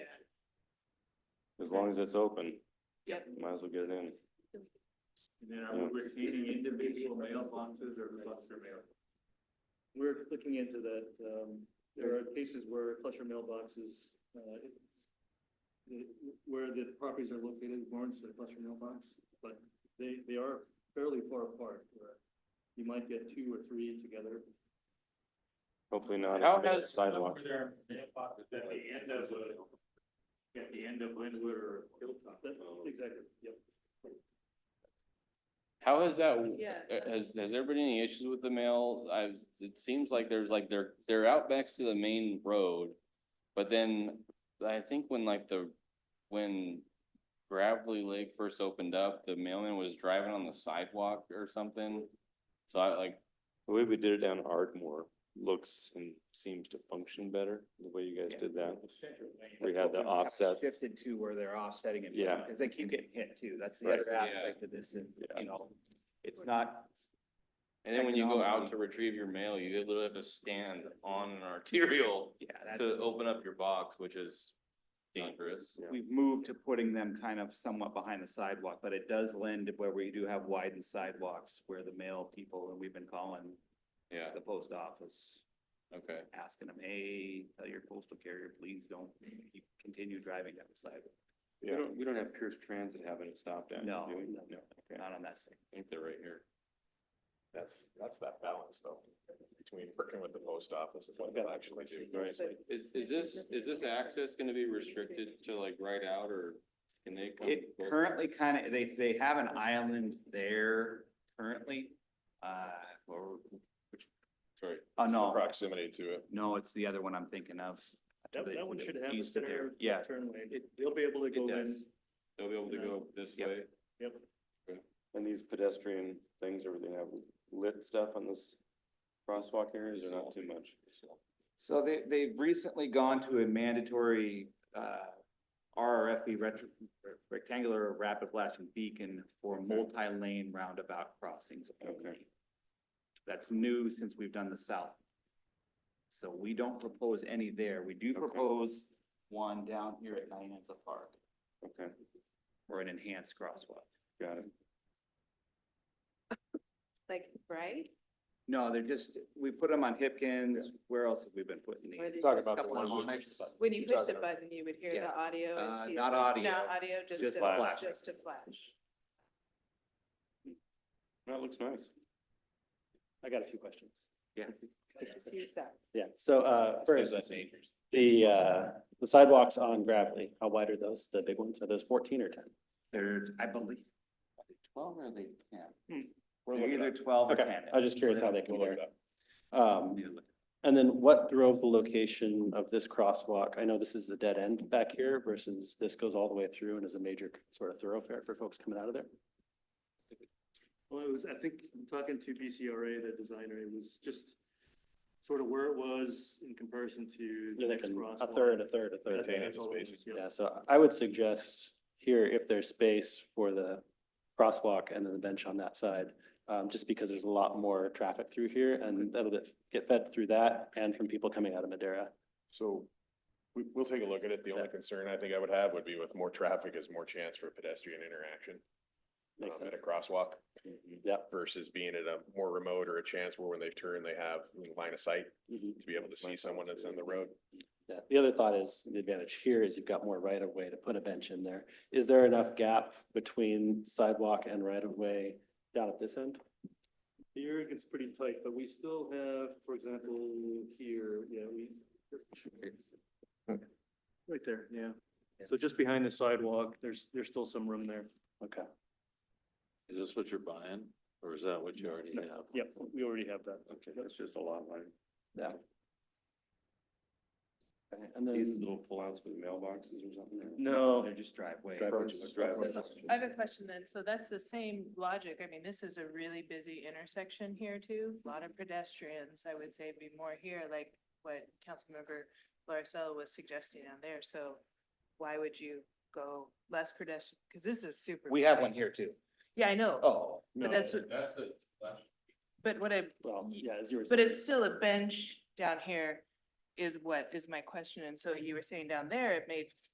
as long as it's open. Yep. Might as well get it in. And then are we retaining individual mailboxes or cluster mail? We're looking into that. Um, there are cases where cluster mailboxes, uh, it- it- where the properties are located warrants a cluster mailbox, but they, they are fairly far apart. where You might get two or three together. Hopefully not. How if there's a has- Sidewalk. Were there mailboxes at the end of, uh, at the end of Linwood or Hilltop? That- Exactly, yep. How has that, Yeah. uh, has, has there been any issues with the mail? I've, it seems like there's like, they're, they're out back to the main road. But then I think when like the, when Gravelly Lake first opened up, the mailman was driving on the sidewalk or something. So I like. The way we did it down Ardmore looks and seems to function better, the way you guys did that. Central Maine. We had the offsets. Shifted to where they're offsetting it. Yeah. Cause they keep getting hit too. That's the Right. other Yeah. aspect of this, and, Yeah. you know, it's not, And then when you go out to retrieve your mail, you literally have to stand on an arterial yeah, that's, to open up your box, which is dangerous. we've moved to putting them kind of somewhat behind the sidewalk, but it does lend to where we do have widened sidewalks where the mail people, and we've been calling Yeah, the post office, okay. asking them, hey, tell your postal carrier, please don't keep- continue driving down the sidewalk. We don't, we don't have Pierce Transit having it stopped at, do No, we? no, Okay, I not on that side. think they're right here. That's, that's that balance though, between working with the post office and what they'll actually do. Right, is, is this, is this access gonna be restricted to like right out or can they come? It both- currently kind of, they, they have an island there currently, uh, or, Sorry, oh, It's the no, Proximity to it. no, it's the other one I'm thinking of. to That, the- that one to the should have a east of there. center Yeah, turn lane. They'll be able to go in. does. they'll be able to go this Yep. way? Yep. And these pedestrian things, are they have lit stuff on this crosswalk areas or not too much? so they, they've recently gone to a mandatory, uh, RRFB retro, rectangular rapid flashing beacon for multi-lane roundabout crossings. only. Okay. That's new since we've done the south. So we don't propose any there. We do Okay. propose one down here at Nyanza Park. Okay, or an enhanced crosswalk. got it. Like, right? No, they're just, we put them on Hipkins, where else have we been putting Or these? the- Talk about the Couple of ones that- mics, When you You're push the talking about- button, you would hear Yeah. the audio Uh, and see. not the- audio, Not audio, just just to, flash. just to flash. That looks nice. I got a few questions. Just use that. Yeah, so uh first, the uh the sidewalks on Gravelly, how wide are those? The big ones? Are those fourteen or ten? They're, I believe, twelve or they ten? They're looking either twelve or ten. Hmm. Okay, I was just curious how they We'll look it compare. up. Um, and then what drove the location of this crosswalk? I know this is a dead end back here versus this goes all the way through and is a major sort of thoroughfare for folks coming out of there. Well, it was, I think, I'm talking to BCRA, the designer, it was just sort of where it was in comparison to the They're next thinking crosswalk. a third, a third, a I think third. Contained that's into all it space. was, yeah. Yeah, so I would suggest here, if there's space for the crosswalk and then the bench on that side, um, just because there's a lot more traffic through here and that'll get, get fed through that and from people coming out of Madera. So we, we'll take a look at it. The only concern I think I would have would be with more traffic is more chance for pedestrian interaction. Makes um, At sense. a crosswalk Yep. versus being at a more remote or a chance where when they turn, they have line of sight Mhm. to be able to see someone that's in the road. Yeah. The other thought is, the advantage here is you've got more right of way to put a bench in there. Is there enough gap between sidewalk and right of way down at this end? Here it gets pretty tight, but we still have, for example, here, yeah, we. Right there, yeah. So just behind the sidewalk, there's, there's still some room there. Okay. Is this what you're buying, or is that what you already have? Yep, we already have that. Okay, that's just a lot line. Yeah. Okay, And then. These little pullouts for the mailboxes or something? No, They're just driveway. Driveways. approaches. Driveway. So I have a question then. So that's the same logic. I mean, this is a really busy intersection here too. A lot of pedestrians. I would say it'd be more here, like what Councilmember Larcella was suggesting on there. So why would you go less pedestrian? Because this is super. We have busy. one here too. Yeah, I know. Oh. But that's, That's the. but what I, Well, yeah, as you were. but saying. it's still a bench down here is what is my question. And so you were saying down there, it made